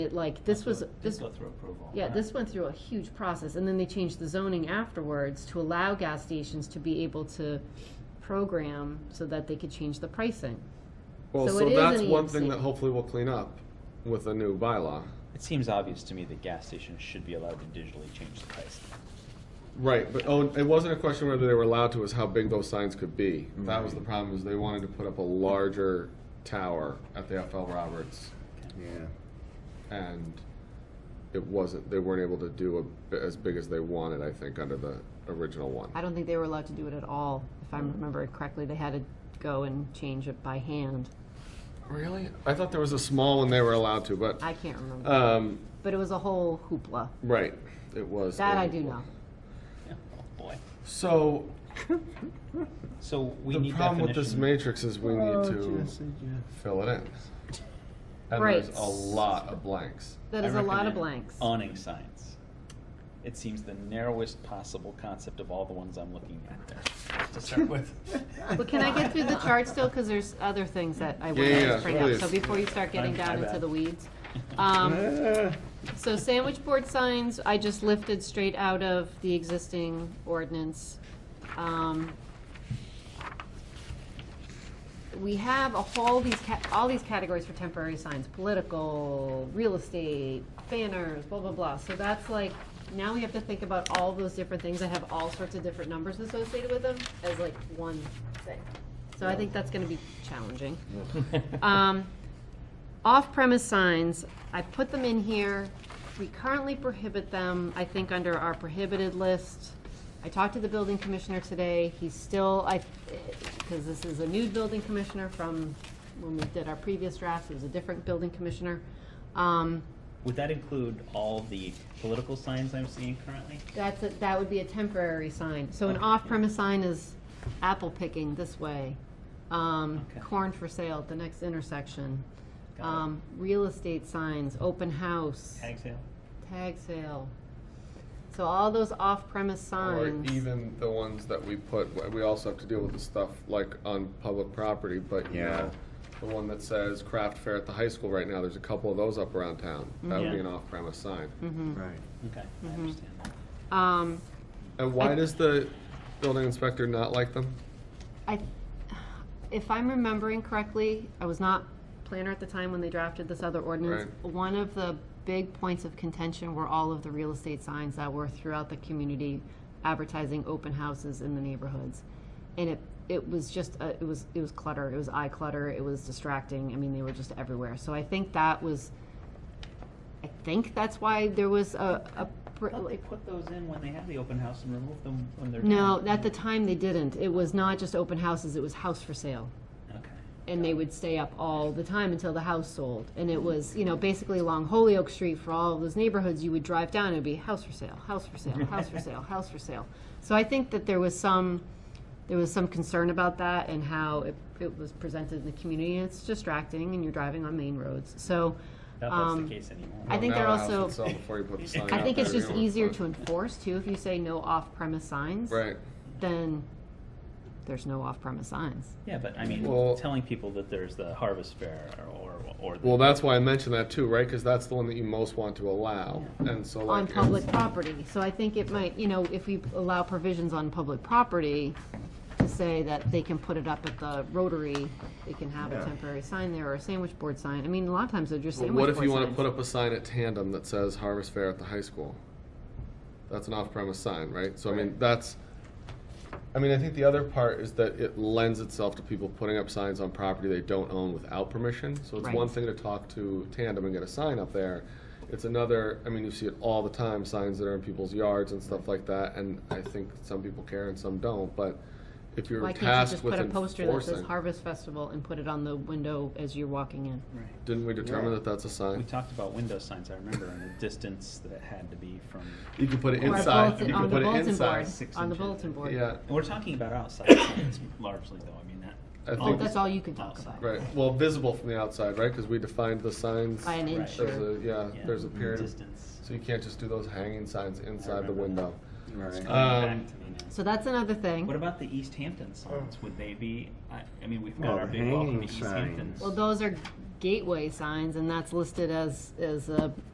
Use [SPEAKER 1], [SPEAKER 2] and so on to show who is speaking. [SPEAKER 1] It, like, this was,
[SPEAKER 2] Did
[SPEAKER 1] this,
[SPEAKER 2] Go through approval.
[SPEAKER 1] yeah, this went through a huge process, and then they changed the zoning afterwards to allow gas stations to be able to program so that they could change the pricing.
[SPEAKER 3] Well,
[SPEAKER 1] So
[SPEAKER 3] so,
[SPEAKER 1] it is
[SPEAKER 3] that's
[SPEAKER 1] an E
[SPEAKER 3] one thing
[SPEAKER 1] EMC.
[SPEAKER 3] that hopefully we'll clean up with a new bylaw.
[SPEAKER 2] It seems obvious to me that gas stations should be allowed to digitally change the price.
[SPEAKER 3] Right, but oh, it wasn't a question whether they were allowed to, it was how big those signs could be. That was the problem, is they wanted to put up a larger tower at the FL Roberts.
[SPEAKER 4] Yeah.
[SPEAKER 3] And it wasn't, they weren't able to do a, as big as they wanted, I think, under the original one.
[SPEAKER 1] I don't think they were allowed to do it at all, if I remember it correctly. They had to go and change it by hand.
[SPEAKER 3] Really? I thought there was a small one they were allowed to, but,
[SPEAKER 1] I can't
[SPEAKER 2] Uh,
[SPEAKER 1] remember,
[SPEAKER 3] um,
[SPEAKER 1] but it was a whole hoopla.
[SPEAKER 3] right, it was.
[SPEAKER 1] That I do know.
[SPEAKER 2] Yeah, Oh, boy.
[SPEAKER 3] So,
[SPEAKER 2] So we
[SPEAKER 3] the
[SPEAKER 2] need
[SPEAKER 3] problem with this
[SPEAKER 2] definition.
[SPEAKER 3] matrix is we need to. fill it in. And
[SPEAKER 1] Right.
[SPEAKER 3] there's a lot of blanks.
[SPEAKER 1] That
[SPEAKER 2] I
[SPEAKER 1] is a lot of
[SPEAKER 2] recommend
[SPEAKER 1] blanks.
[SPEAKER 2] Awning signs. It seems the narrowest possible concept of all the ones I'm looking at there, to start with.
[SPEAKER 1] But can I get through the chart still, because there's other things that I
[SPEAKER 3] Yeah,
[SPEAKER 1] wanted
[SPEAKER 3] yeah,
[SPEAKER 1] to bring up,
[SPEAKER 3] please.
[SPEAKER 1] so before you start getting
[SPEAKER 2] My- my
[SPEAKER 1] down into
[SPEAKER 2] bad.
[SPEAKER 1] the weeds. Um, so sandwich board signs, I just lifted straight out of the existing ordinance. Um, we have a whole, these, ca- all these categories for temporary signs, political, real estate, banners, blah, blah, blah. So that's like, now we have to think about all those different things that have all sorts of different numbers associated with them as like one thing. So I think that's gonna be challenging. Um, Off-premise signs, I put them in here. We currently prohibit them, I think, under our prohibited list. I talked to the building commissioner today. He's still, I, because this is a new building commissioner from when we did our previous draft, it was a different building commissioner. Um,
[SPEAKER 2] Would that include all the political signs I'm seeing currently?
[SPEAKER 1] That's, a- that would be a temporary sign.
[SPEAKER 2] Oh,
[SPEAKER 1] So an off-premise sign is apple picking this way, um,
[SPEAKER 2] Okay.
[SPEAKER 1] corn for sale at the next intersection,
[SPEAKER 2] Got it.
[SPEAKER 1] um, real estate signs, open house,
[SPEAKER 2] Tag sale?
[SPEAKER 1] tag sale. So all those off-premise
[SPEAKER 3] Or
[SPEAKER 1] signs,
[SPEAKER 3] even the ones that we put, we also have to deal with the stuff like on public property, but you
[SPEAKER 4] Yeah.
[SPEAKER 3] know, the one that says craft fair at the high school right now, there's a couple of those up around town.
[SPEAKER 1] Mm-hmm.
[SPEAKER 3] That would be
[SPEAKER 2] Yeah.
[SPEAKER 3] an off-premise sign.
[SPEAKER 4] Right.
[SPEAKER 2] Okay, I understand that.
[SPEAKER 1] um,
[SPEAKER 3] And why does the building inspector not like them?
[SPEAKER 1] I, if I'm remembering correctly, I was not planner at the time when they drafted this other ordinance. One of the big points of contention were all of the real estate signs that were throughout the community advertising open houses in the neighborhoods. And it, it was just, uh, it was, it was clutter, it was eye clutter, it was distracting, I mean, they were just everywhere. So I think that was, I think that's why there was a, a. pr-
[SPEAKER 2] I thought they put those in when they had the open house and removed them when they're done.
[SPEAKER 1] No, at the time they didn't. It was not just open houses, it was house for sale.
[SPEAKER 2] Okay.
[SPEAKER 1] and they would stay up all the time until the house sold. And it was, you know, basically along Holyoke Street for all of those neighborhoods, you would drive down and it'd be house for sale, house for sale, house for sale, house for sale. So I think that there was some, there was some concern about that and how it, it was presented in the community. And it's distracting and you're driving on main roads. So,
[SPEAKER 2] Not that's
[SPEAKER 1] um,
[SPEAKER 2] the case anymore.
[SPEAKER 1] I think
[SPEAKER 3] Now
[SPEAKER 1] they're
[SPEAKER 3] the house would
[SPEAKER 1] also-
[SPEAKER 3] sell Before you put the sign
[SPEAKER 1] I
[SPEAKER 3] up
[SPEAKER 1] think it's
[SPEAKER 3] there,
[SPEAKER 1] just
[SPEAKER 3] you know,
[SPEAKER 1] easier
[SPEAKER 3] but-
[SPEAKER 1] to enforce too. If you say no off-premise signs,
[SPEAKER 3] Right,
[SPEAKER 1] then there's no off-premise signs.
[SPEAKER 2] Yeah, but I mean,
[SPEAKER 3] Well-
[SPEAKER 2] telling people that there's the harvest fair or, or. the-
[SPEAKER 3] well, that's why I mentioned that too, right? Cause that's the one that you most want to allow, and so like.
[SPEAKER 1] on
[SPEAKER 3] it's-
[SPEAKER 1] public property. So I think it might, you know, if we allow provisions on public property to say that they can put it up at the Rotary, they can have a
[SPEAKER 4] Yeah.
[SPEAKER 1] temporary sign there or a sandwich board sign. I mean, a lot of times they're just
[SPEAKER 3] But
[SPEAKER 1] sandwich
[SPEAKER 3] what
[SPEAKER 1] board
[SPEAKER 3] if you want to
[SPEAKER 1] signs.
[SPEAKER 3] put up a sign at Tandem that says Harvest Fair at the high school? That's an off-premise sign, right? So I mean, that's. I mean, I think the other part is that it lends itself to people putting up signs on property they don't own without permission. So it's
[SPEAKER 1] Right.
[SPEAKER 3] one thing to talk to Tandem and get a sign up there. It's another. I mean, you see it all the time, signs that are in people's yards and stuff like that. And I think some people care and some don't. But if you're
[SPEAKER 1] Why can't you
[SPEAKER 3] tasked
[SPEAKER 1] just
[SPEAKER 3] with
[SPEAKER 1] put a poster that says
[SPEAKER 3] enforcing,
[SPEAKER 1] Harvest Festival and put it on the window as you're walking in?
[SPEAKER 2] Right.
[SPEAKER 3] didn't we determine
[SPEAKER 4] Yeah.
[SPEAKER 3] that that's a
[SPEAKER 2] We
[SPEAKER 3] sign?
[SPEAKER 2] talked about window signs, I remember, and the distance that it had to be from,
[SPEAKER 3] You can put it
[SPEAKER 1] Or a
[SPEAKER 3] inside.
[SPEAKER 1] bulletin-
[SPEAKER 3] You
[SPEAKER 1] on
[SPEAKER 3] can
[SPEAKER 1] the
[SPEAKER 3] put it
[SPEAKER 1] bulletin
[SPEAKER 3] inside.
[SPEAKER 1] board,
[SPEAKER 2] Six
[SPEAKER 1] On the
[SPEAKER 2] inches.
[SPEAKER 1] bulletin board.
[SPEAKER 3] Yeah.
[SPEAKER 2] and we're talking about outside signs largely, though, I mean,
[SPEAKER 3] I
[SPEAKER 2] that.
[SPEAKER 3] think-
[SPEAKER 1] That's all you can talk about.
[SPEAKER 3] Right, well, visible from the outside, right, because we defined the signs.
[SPEAKER 1] By an
[SPEAKER 2] Right.
[SPEAKER 1] inch
[SPEAKER 3] There's
[SPEAKER 1] or,
[SPEAKER 3] a, yeah,
[SPEAKER 2] Yeah, Mm-hmm.
[SPEAKER 3] there's a period, of-
[SPEAKER 2] Distance.
[SPEAKER 3] so you can't just do those hanging signs inside the
[SPEAKER 2] remember
[SPEAKER 3] window.
[SPEAKER 2] It's
[SPEAKER 1] Uh,
[SPEAKER 4] Right.
[SPEAKER 2] coming
[SPEAKER 3] Um,
[SPEAKER 2] back to me now.
[SPEAKER 1] so that's another thing.
[SPEAKER 2] What about the East Hampton signs? Would they be, I, I mean, we've got
[SPEAKER 4] Oh,
[SPEAKER 2] our
[SPEAKER 4] the
[SPEAKER 2] big welcome
[SPEAKER 4] hanging
[SPEAKER 2] to East
[SPEAKER 4] signs.
[SPEAKER 2] Hampton.
[SPEAKER 1] Well, those are gateway signs, and that's listed as, as a